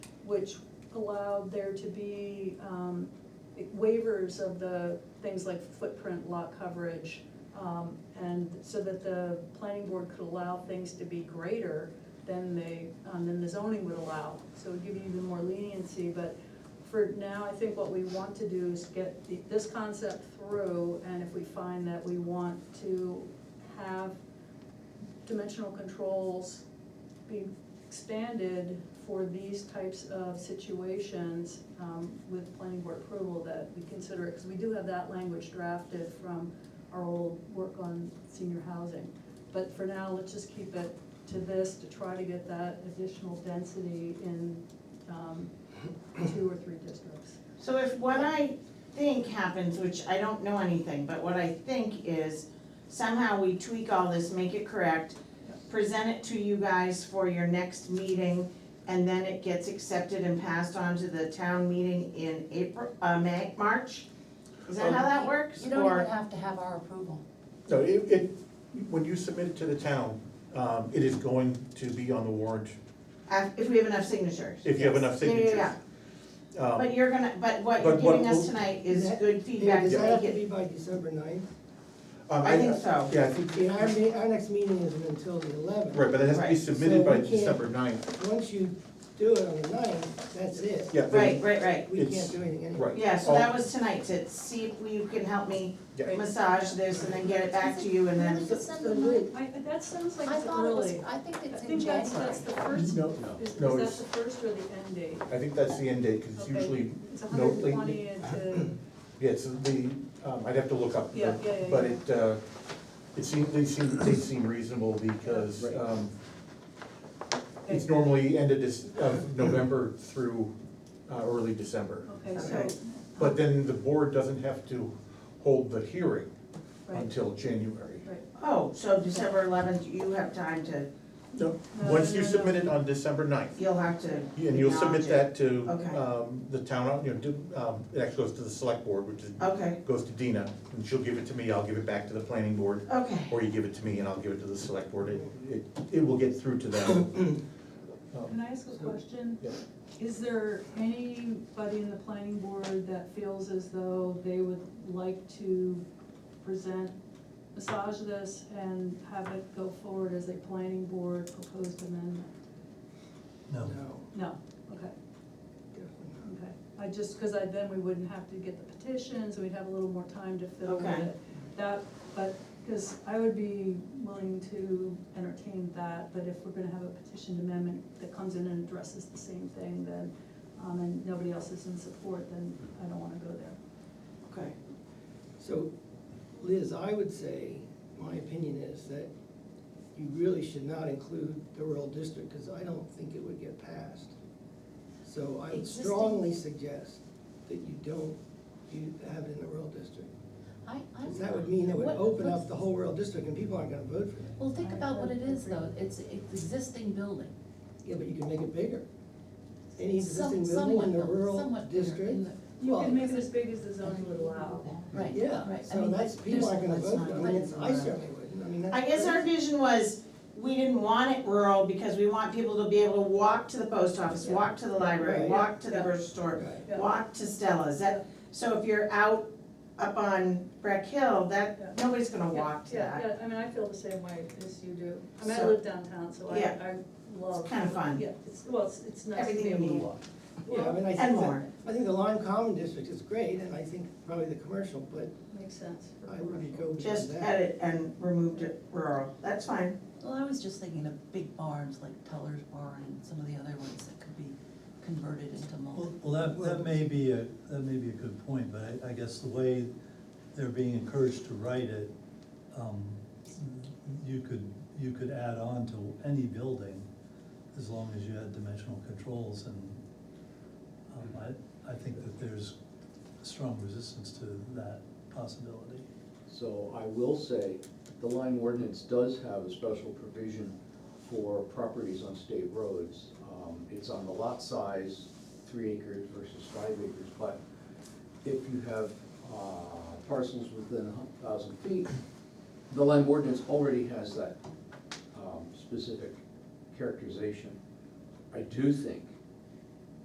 which allowed there to be um, waivers of the things like footprint, lot coverage, um, and so that the planning board could allow things to be greater than they, um, than the zoning would allow. So it would give you even more leniency, but for now, I think what we want to do is get the- this concept through, and if we find that we want to have dimensional controls be expanded for these types of situations um, with planning board approval that we consider it, because we do have that language drafted from our old work on senior housing. But for now, let's just keep it to this to try to get that additional density in um, two or three districts. So if what I think happens, which I don't know anything, but what I think is somehow we tweak all this, make it correct, present it to you guys for your next meeting, and then it gets accepted and passed on to the town meeting in April, uh, May, March? Is that how Um, that works? You don't even Or, have to have our approval. No, it, it, when you submit it to the town, um, it is going to be on the warrant, uh, if we have enough signatures? if you have enough Yeah, yeah, signatures. yeah. Um, But you're gonna, but what you're But what- giving us tonight is That- good feedback Does to that have make to it, be by December ninth? um, I think so. Yeah, I think, I mean, our, me- our next meeting isn't until the eleventh. right, but it has to be Right. submitted So by we can't- December ninth, Once you do it on the ninth, that's it. yeah. they- right, right, right. We It's- can't do anything anyway. Right. Yeah, so All- that was tonight, to see if you can help me Yeah. massage this and then get it back to you and then. Is it December so ninth? I, that sounds like I it's thought it was, early. I think I it's in think that's, January. that's the first, No, no. is, is No, that it's- the first or the end date? I think that's the end date, cause it's Okay. usually, It's no, hundred and twenty into. yeah, it's the, um, I'd have to look up. the- Yeah, yeah, yeah, But yeah. it, uh, it seems, they seem, they seem reasonable because, Right. um, it's normally end of this, of November through, uh, early December. Okay, so, uh, Okay. But then the board doesn't have to hold the hearing right, until January. right. Oh, so December eleventh, you have time to, No. No, Once no, you no, submit it on December ninth, you'll have to. and you'll submit that to, Okay. um, the town, you know, do- um, it actually goes to the select board, which is, Okay, goes to Dina, and she'll give it to me, I'll give it back to the planning board, okay, or you give it to me and I'll give it to the select board, it, it, it will get through to them. Um, Can I ask a question? yeah. Is there anybody in the planning board that feels as though they would like to present, massage this and have it go forward as a planning board proposed amendment? No, No, okay, definitely not. okay. I just, because I, then we wouldn't have to get the petitions, we'd have a little more time to fill with Okay. it. That, but, because I would be willing to entertain that, but if we're gonna have a petition amendment that comes in and addresses the same thing, then, um, and nobody else is in support, then I don't wanna go there. okay. So Liz, I would say, my opinion is that you really should not include the rural district, because I don't think it would get passed. So I would Existing. strongly suggest that you don't, you have it in the rural district. I, I. 'Cause that would mean it would What- open what's- up the whole rural district and people aren't gonna vote for that. Well, think about what it is though, it's, it's existing building. Yeah, but you can make it bigger. Any Some- existing building in the somewhat, though, rural somewhat bigger in district. the- You Well, can make it as big as the zoning would allow. Right, Yeah, right. I so mean, that's, people there's- aren't gonna let's vote not for it. I put mean, it it's- in I the- certainly wouldn't, I mean, that's. I guess our vision was, we didn't want it rural because we want people to be able to walk to the post office, walk to the library, Right. walk to the Yeah. grocery store, Right. Yeah. walk to Stella's, that, so if you're out up on Breck Hill, that, Yeah. nobody's gonna walk to that. Yeah, I mean, I feel the same way as you do. I mean, I So- live downtown, so I, Yeah. I love. It's kinda fun. Yeah, it's, well, it's, it's nice to be Everything able you to need. walk. Yeah, I mean, I And think more. that, I think the Lime Common District is great, and I think probably the commercial, but Makes sense. for I commercial. would go beyond Just that. edit and removed it rural, that's fine. Well, I was just thinking of big barns like Teller's Barn and some of the other ones that could be converted into Well, multi. well, that, that may be a, that may be a good point, but I, I guess the way they're being encouraged to write it, um, you could, you could add on to any building as long as you had dimensional controls and, um, I, I think that there's strong resistance to that possibility. So I will say, the line ordinance does have a special provision for properties on state roads. Um, It's on the lot size, three acres versus five acres, but if you have uh, parcels within a thousand feet, the line ordinance already has that um, specific characterization. I do think